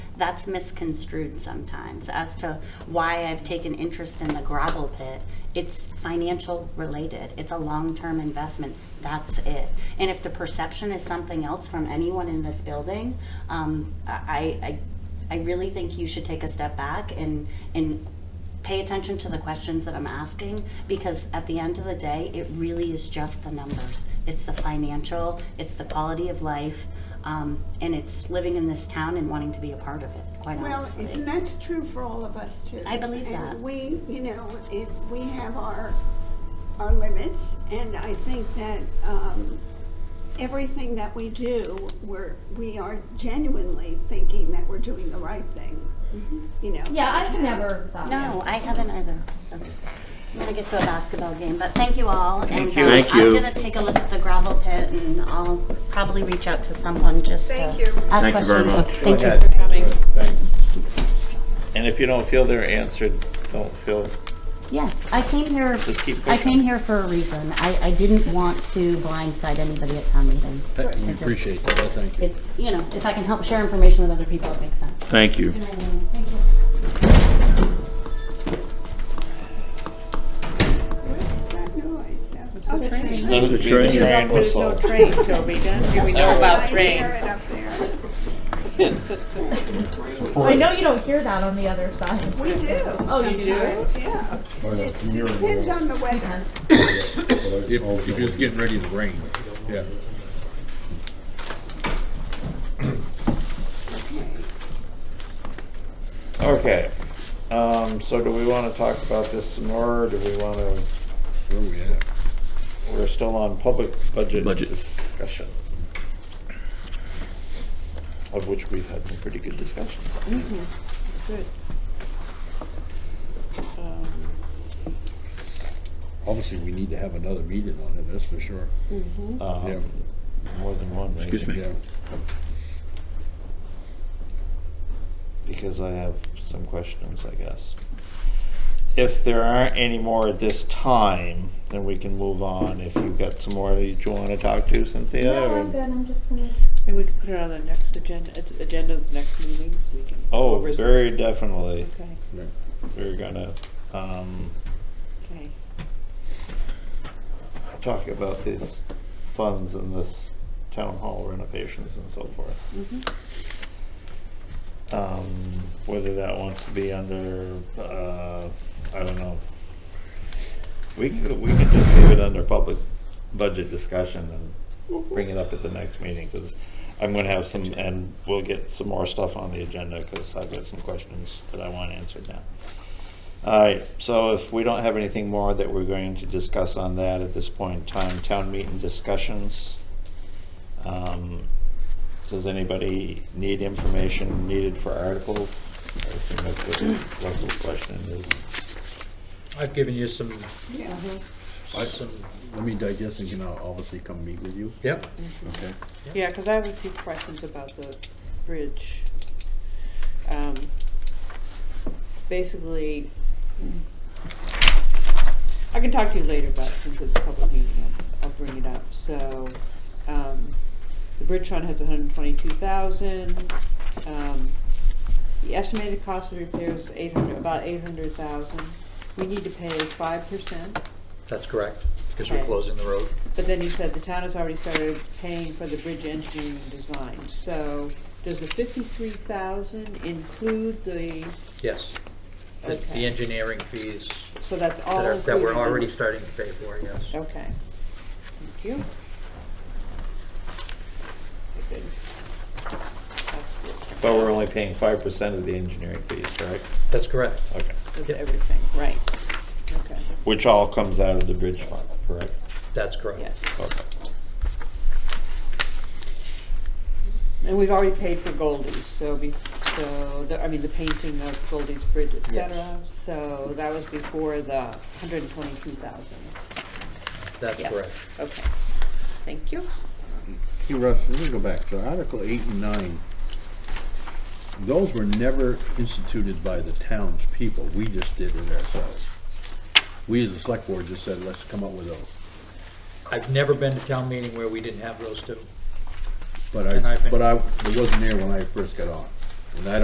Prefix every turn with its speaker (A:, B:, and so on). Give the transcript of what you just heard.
A: that's misconstrued sometimes as to why I've taken interest in the gravel pit. It's financial related. It's a long-term investment. That's it. And if the perception is something else from anyone in this building, um, I, I, I really think you should take a step back and, and pay attention to the questions that I'm asking, because at the end of the day, it really is just the numbers. It's the financial, it's the quality of life, um, and it's living in this town and wanting to be a part of it, quite
B: Well, and
A: honestly.
B: that's true for all of us too.
A: I believe that.
B: And we, you know, it, we have our, our limits, and I think that, um, everything that we do, we're, we are genuinely thinking that we're doing the right thing, you know.
C: Yeah,
B: as a
C: I've
B: town.
C: never thought.
A: No, I haven't either, so. I'm gonna get to a basketball game, but thank you all. Thank
D: you. Thank you.
A: I'm gonna take a look at the gravel pit, and I'll probably reach out to someone just to ask
E: Thank you.
A: questions.
D: Thank you very much.
A: Thank you.
F: And if you don't feel they're answered, don't feel,
A: Yeah, I came here,
F: Just keep
A: I
F: pushing.
A: came here for a reason. I, I didn't want to blindside anybody at town meeting.
G: We appreciate that, I thank you.
A: It, you know, if I can help share information with other people, it makes sense.
D: Thank you.
B: What's that noise? Oh, it's a train.
F: Doesn't
D: The
F: mean the
D: train.
F: train
E: There's no
F: whistle.
E: train, Toby, don't you? We know about
B: I hear it
E: trains.
B: up there.
C: I know you don't hear that on the other side.
B: We do.
C: Oh, you do?
B: sometimes, Yeah. It depends on the weather.
G: If, if it's getting ready to rain, yeah.
F: Okay, um, so do we wanna talk about this some more, or do we wanna,
G: Where we at?
F: we're still on public budget
D: Budget.
F: discussion? Of which we've had some pretty good discussions.
E: Good.
G: Obviously, we need to have another meeting on it, that's for sure.
B: Mm-hmm.
G: Yeah,
F: Um, more than one, maybe.
D: Excuse me.
G: yeah.
F: because I have some questions, I guess. If there aren't any more at this time, then we can move on. If you've got some more that you want to talk to, Cynthia?
C: No,
F: or-
C: I'm good. I'm just gonna.
E: Maybe we could put it on the next agenda, ag- agenda of the next meetings, we can.
F: Oh,
E: over-
F: very definitely.
E: Okay,
G: Yeah.
F: We're gonna, um,
E: okay.
F: talk about these funds and this town hall renovations and so forth. Um, whether that wants to be under, uh, I don't know. We could, we could just leave it under public budget discussion and bring it up at the next meeting, because I'm gonna have some, and we'll get some more stuff on the agenda, because I've got some questions that I want answered now. All right, so if we don't have anything more that we're going to discuss on that at this point in time, town meeting discussions. Um, Does anybody need information needed for articles? I assume that's what Russell's question is.
H: I've given you some,
B: Yeah.
G: I- Let me digest and can I obviously come meet with you,
H: yep,
G: okay?
E: Yeah, because I have a few questions about the bridge. Um, Basically, I can talk to you later, but since it's a public meeting, I'll- I'll bring it up. So, um, the bridge fund has hundred and twenty-two thousand. Um, The estimated cost of repairs is eight hundred, about eight hundred thousand. We need to pay five percent.
H: that's correct, because we're
E: Okay.
H: closing the road.
E: But then you said the town has already started paying for the bridge engineering and design, so does the fifty-three thousand include the,
H: Yes. The- The
E: Okay.
H: engineering fees
E: so that's all
H: that are,
E: included?
H: that we're
E: in-
H: already starting to pay for, yes.
E: Okay. Thank you. Good. That's good.
F: But we're only paying five percent of the engineering fees, correct?
H: That's correct.
F: Okay.
E: That's
H: Yep.
E: everything, right, okay,
F: Which all comes out of the bridge fund, correct?
H: That's correct.
E: yes.
F: Okay.
E: And we've already paid for Goldie's, so be, so, the- I mean, the painting of Goldie's Bridge, et cetera, so that was before the hundred and twenty-two thousand.
H: That's
E: Yes.
H: correct.
E: Okay, thank you.
G: Hey Russ, let me go back, so Article eight and nine, those were never instituted by the townspeople, we just did it ourselves. We as a select board just said, let's come up with those,
H: I've never been to town meeting where we didn't have those two.
G: but
H: And I
G: I,
H: think-
G: but I, it wasn't there when I first got on, and I don't